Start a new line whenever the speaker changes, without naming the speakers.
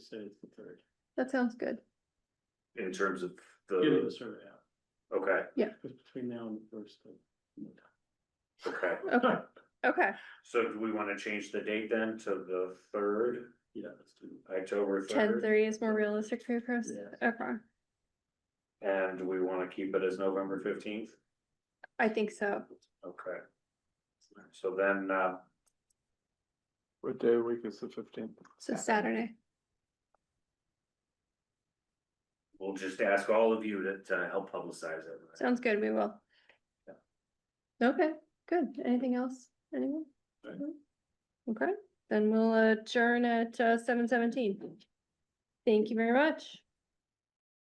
say it's the third,
That sounds good.
in terms of
getting the
the,
survey out,
okay,
because between now and the first. of-
okay.
Okay, okay.
So do we wanna change the date then to the third,
Yeah, let's do it.
October
Ten
third?
thirty is more realistic for your process.
Yeah.
Okay,
And do we wanna keep it as November fifteenth?
I think so.
Okay. So then, uh,
What day of the week is the fifteenth?
So Saturday.
we'll just ask all of you to, to help publicize it.
Sounds good, we will.
Yeah.
Okay, good. Anything else? Anyone?
Right.
No? Okay, then we'll adjourn at seven seventeen. uh, Thank you very much.